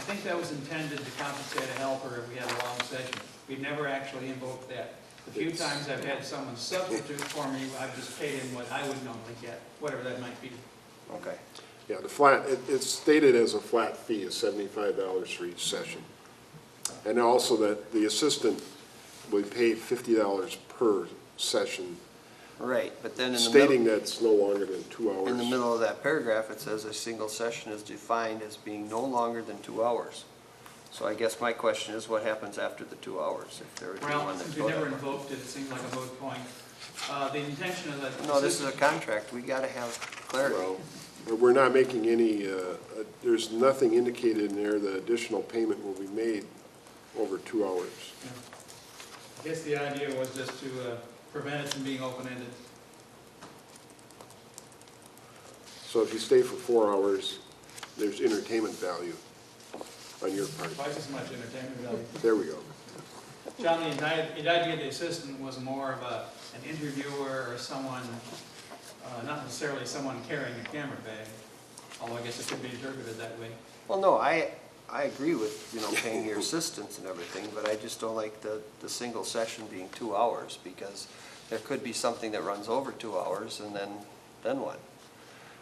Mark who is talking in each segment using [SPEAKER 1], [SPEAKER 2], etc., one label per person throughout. [SPEAKER 1] think that was intended to compensate a helper if we had a long session. We've never actually invoked that. The few times I've had someone substitute for me, I've just paid him what I would normally get, whatever that might be.
[SPEAKER 2] Okay.
[SPEAKER 3] Yeah, the flat, it- it's stated as a flat fee of seventy-five dollars for each session. And also that the assistant will be paid fifty dollars per session,
[SPEAKER 2] Right, but then in the middle,
[SPEAKER 3] stating that it's no longer than two hours.
[SPEAKER 2] in the middle of that paragraph, it says a single session is defined as being no longer than two hours. So I guess my question is, what happens after the two hours, if there would be
[SPEAKER 1] Well,
[SPEAKER 2] one that's
[SPEAKER 1] since we
[SPEAKER 2] going
[SPEAKER 1] never invoked it, it seemed like a moot point. Uh, The intention of that.
[SPEAKER 2] No, this is a contract, we gotta have clarity.
[SPEAKER 3] Well, We're not making any, uh, uh, there's nothing indicated in there that additional payment will be made over two hours.
[SPEAKER 1] I guess the idea was just to uh, prevent it from being open-ended.
[SPEAKER 3] So if you stay for four hours, there's entertainment value on your part.
[SPEAKER 1] Twice as much entertainment value.
[SPEAKER 3] There we go.
[SPEAKER 1] John, the idea, the idea of the assistant was more of a, an interviewer or someone, uh, not necessarily someone carrying a camera bag, although I guess it could be interpreted that way.
[SPEAKER 2] Well, no, I, I agree with, you know, paying your assistants and everything, but I just don't like the, the single session being two hours, because there could be something that runs over two hours, and then, then what?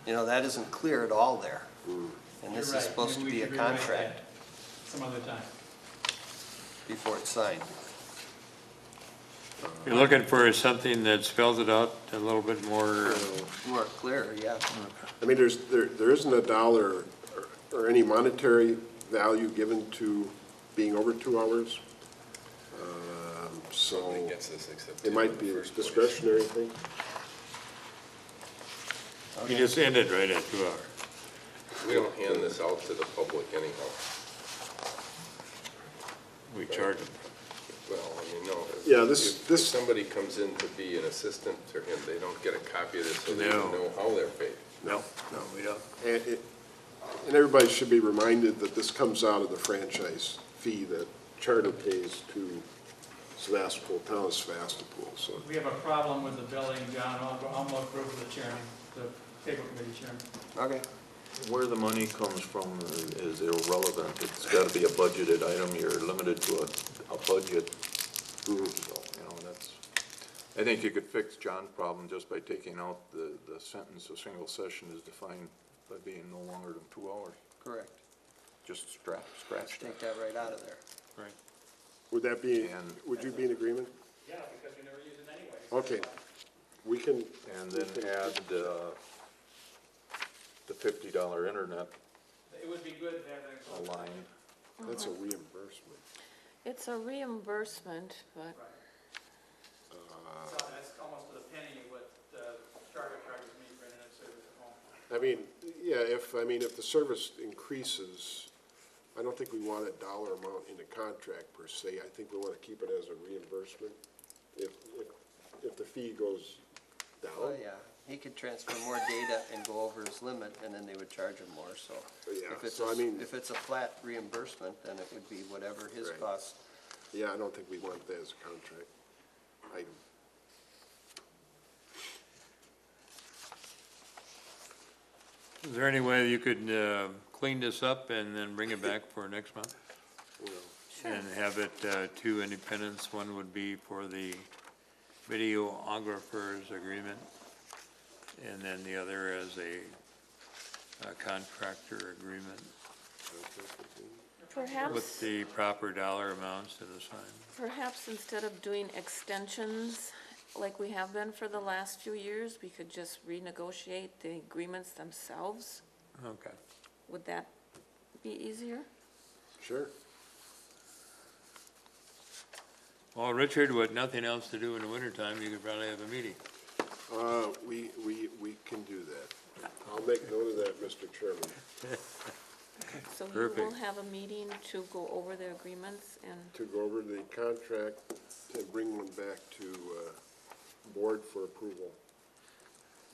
[SPEAKER 2] You know, that isn't clear at all there, and this
[SPEAKER 1] Mm. You're
[SPEAKER 2] is
[SPEAKER 1] right.
[SPEAKER 2] supposed to
[SPEAKER 1] Maybe we
[SPEAKER 2] be a
[SPEAKER 1] should rewrite
[SPEAKER 2] contract
[SPEAKER 1] that Some other time.
[SPEAKER 2] before it's signed.
[SPEAKER 4] You're looking for something that spells it out a little bit more, uh,
[SPEAKER 2] More clear, yeah.
[SPEAKER 3] I mean, there's, there, there isn't a dollar or- or any monetary value given to being over two hours. Um, So
[SPEAKER 5] Nobody gets this except.
[SPEAKER 3] it might be a discretionary thing.
[SPEAKER 4] you just ended right at two hours.
[SPEAKER 5] We don't hand this out to the public anyhow.
[SPEAKER 4] We charge them.
[SPEAKER 5] Well, I mean, no. if-
[SPEAKER 3] Yeah, this-
[SPEAKER 5] if- if
[SPEAKER 3] this-
[SPEAKER 5] Somebody comes in to be an assistant to him, they don't get a copy of this, so they
[SPEAKER 4] No.
[SPEAKER 5] don't know how they're paid.
[SPEAKER 3] No.
[SPEAKER 4] No, we don't.
[SPEAKER 3] And it, and everybody should be reminded that this comes out of the franchise fee that Charter pays to Sevastopol, town of Sevastopol, so.
[SPEAKER 1] We have a problem with the billing, John, I'll, I'll look through with the chairman, the cable committee chairman.
[SPEAKER 2] Okay,
[SPEAKER 6] Where the money comes from is irrelevant. It's got to be a budgeted item. You're limited to a, a budget. So, You know, that's, I think you could fix John's problem just by taking out the, the sentence, a single session is defined by being no longer than two hours.
[SPEAKER 2] correct.
[SPEAKER 6] Just scratch,
[SPEAKER 2] Just
[SPEAKER 6] scratch
[SPEAKER 2] Take
[SPEAKER 6] that.
[SPEAKER 2] that right out of there.
[SPEAKER 3] Would that be,
[SPEAKER 6] And-
[SPEAKER 3] would you be in agreement?
[SPEAKER 1] Yeah, because we never use it anyway.
[SPEAKER 3] Okay, we can,
[SPEAKER 6] And then add, uh, the fifty dollar internet
[SPEAKER 1] It would be good to have that.
[SPEAKER 6] line.
[SPEAKER 3] that's a reimbursement.
[SPEAKER 7] It's a reimbursement, but
[SPEAKER 1] So that's almost to the penny what uh, Charter charges me for internet service at home.
[SPEAKER 3] I mean, yeah, if, I mean, if the service increases, I don't think we want a dollar amount in the contract per se. I think we want to keep it as a reimbursement if, if, if the fee goes
[SPEAKER 2] Oh,
[SPEAKER 3] down.
[SPEAKER 2] yeah, he could transfer more data and go over his limit, and then they would charge him more, so.
[SPEAKER 3] Oh, Yeah,
[SPEAKER 2] if it's
[SPEAKER 3] so
[SPEAKER 2] a-
[SPEAKER 3] I mean-
[SPEAKER 2] If it's a flat reimbursement, then it would be whatever his
[SPEAKER 3] Right.
[SPEAKER 2] cost.
[SPEAKER 3] Yeah, I don't think we want that as a contract item.
[SPEAKER 4] Is there any way you could uh, clean this up and then bring it back for next month? And have it uh, two independents, one would be for the videographers agreement, and then the other is a a contractor agreement with
[SPEAKER 7] perhaps,
[SPEAKER 4] the proper dollar amounts to the sign.
[SPEAKER 7] perhaps instead of doing extensions like we have been for the last few years, we could just renegotiate the agreements themselves.
[SPEAKER 4] Okay.
[SPEAKER 7] Would that be easier?
[SPEAKER 3] Sure.
[SPEAKER 4] Well, Richard, with nothing else to do in the wintertime, you could probably have a meeting.
[SPEAKER 3] Uh, we, we, we can do that. I'll make note of that, Mr. Chairman.
[SPEAKER 7] So you will
[SPEAKER 4] Perfect.
[SPEAKER 7] have a meeting to go over the agreements and,
[SPEAKER 3] to go over the contract and bring one back to uh, board for approval.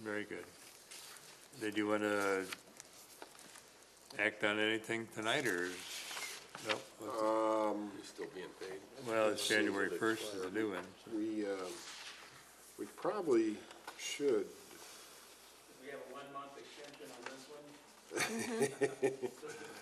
[SPEAKER 4] Very good. Did you want to act on anything tonight, or, is- nope, okay.
[SPEAKER 3] Um,
[SPEAKER 5] You're still being paid.
[SPEAKER 4] well, it's January first is the new one. so-
[SPEAKER 3] We, uh, we probably should,
[SPEAKER 1] We have a one-month extension on this one. Just to